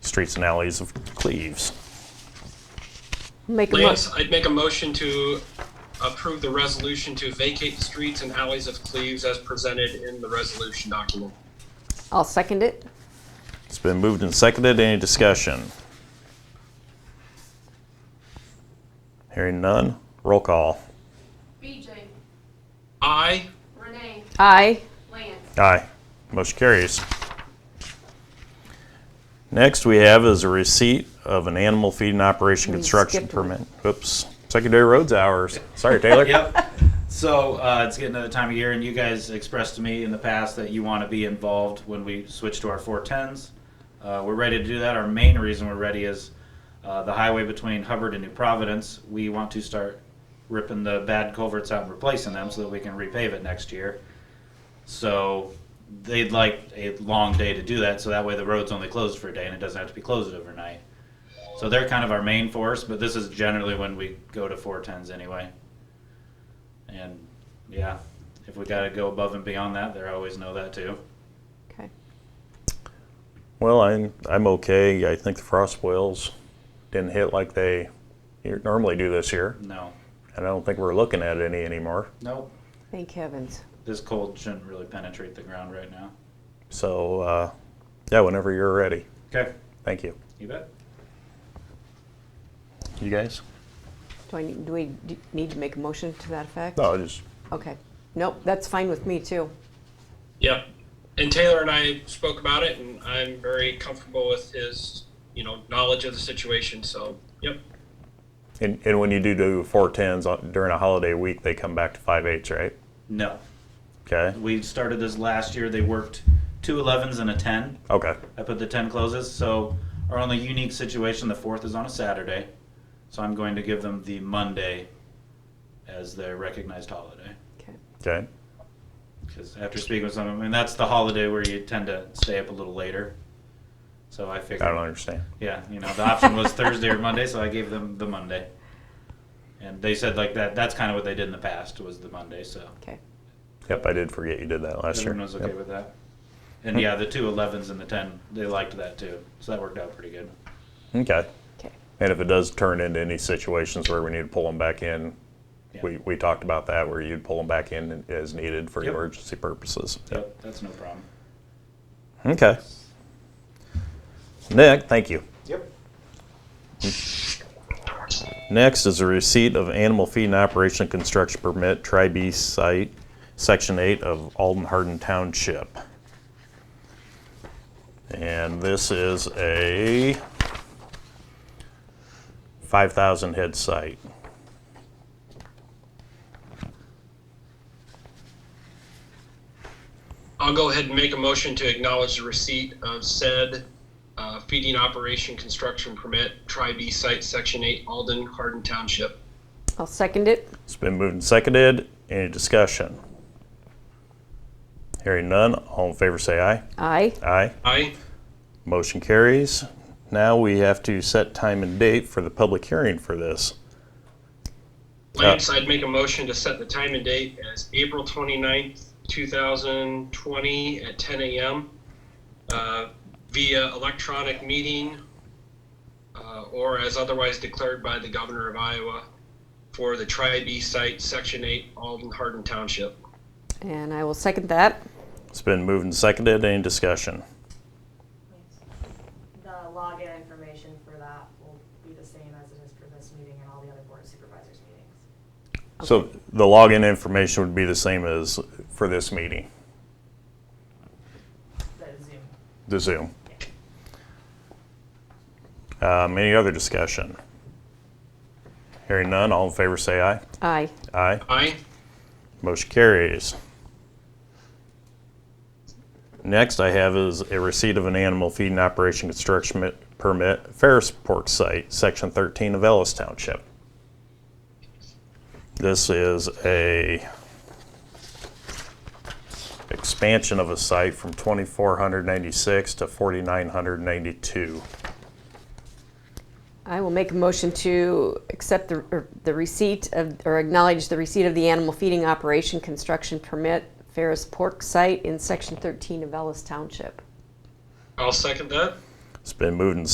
streets and alleys of Cleves. Make a mo- Lance, I'd make a motion to approve the resolution to vacate the streets and alleys of Cleves as presented in the resolution document. I'll second it. It's been moved and seconded. Any discussion? Hearing none, roll call. BJ, Aye. Renee, Aye. Lance, Aye. Motion carries. Next we have is a receipt of an animal feeding operation We construction skipped one. permit. Oops, secondary roads hours. Sorry, Taylor. Yep. So uh, it's getting to the time of year, and you guys expressed to me in the past that you want to be involved when we switch to our 410s. Uh, we're ready to do that. Our main reason we're ready is uh, the highway between Hubbard and New Providence. We want to start ripping the bad culverts out and replacing them so that we can repave it next year. So they'd like a long day to do that, so that way the road's only closed for a day and it doesn't have to be closed overnight. So they're kind of our main force, but this is generally when we go to 410s anyway. And yeah, if we got to go above and beyond that, they always know that too. Okay. Well, I'm I'm okay. I think the frost boils didn't hit like they normally do this year, No, and I don't think we're looking at any anymore. nope. Thank heavens. This cold shouldn't really penetrate the ground right now. So, uh, yeah, whenever you're ready. Okay, Thank you. you bet. You guys? Do I need, do we d- need to make a motion to that effect? No, I just Okay. Nope, that's fine with me too. Yep. And Taylor and I spoke about it, and I'm very comfortable with his, you know, knowledge of the situation. So, yep. and, and when you do do four tens during a holiday week, they come back to five eights, right? No, Okay. we started this last year. They worked two 11s and a 10. Okay. I put the 10 closes. So our only unique situation, the fourth is on a Saturday. So I'm going to give them the Monday as their recognized holiday. Okay. Okay. Because after speaking with some of them, and that's the holiday where you tend to stay up a little later. So I I figured. don't understand. Yeah, you know, the option was Thursday or Monday, so I gave them the Monday. And they said like that. That's kind of what they did in the past was the Monday. So Okay. Yep, I did forget you did that last year. everyone was okay Yep. with that. And yeah, the two 11s and the 10, they liked that too. So that worked out pretty good. Okay. Okay. And if it does turn into any situations where we need to pull them back in, Yeah. we, we talked about that where you'd pull them back in as needed for Yep. emergency purposes. Yep, that's no problem. Okay. Nick, thank you. Yep. Next is a receipt of animal feeding operation construction permit, Tri B site, Section 8 of Alden Hardin Township. And this is a 5,000 head site. I'll go ahead and make a motion to acknowledge the receipt of said uh, feeding operation construction permit, Tri B Site, Section 8, Alden, Hardin Township. I'll second it. It's been moved and seconded. Any discussion? Hearing none, all in favor say aye. Aye. Aye. Aye. Motion carries. Now we have to set time and date for the public hearing for this. Lance, I'd make a motion to set the time and date as April 29th, 2020 at 10 a.m. uh, via electronic meeting uh, or as otherwise declared by the governor of Iowa for the Tri-B site, Section 8, Alden Hardin Township. And I will second that. It's been moved and seconded. Any discussion? The login information for that will be the same as it is for this meeting and all the other board supervisors meetings. So the login information would be the same as for this meeting, That is Zoom. the Zoom. Um, any other discussion? Hearing none, all in favor say aye. Aye. Aye. Aye. Motion carries. Next I have is a receipt of an animal feeding operation construction mi- permit, Ferris Pork Site, Section 13 of Ellis Township. This is a expansion of a site from 2,496 to 4,992. I will make a motion to accept the, or the receipt of, or acknowledge the receipt of the animal feeding operation construction permit, Ferris Pork Site in Section 13 of Ellis Township. I'll second that. It's been moved and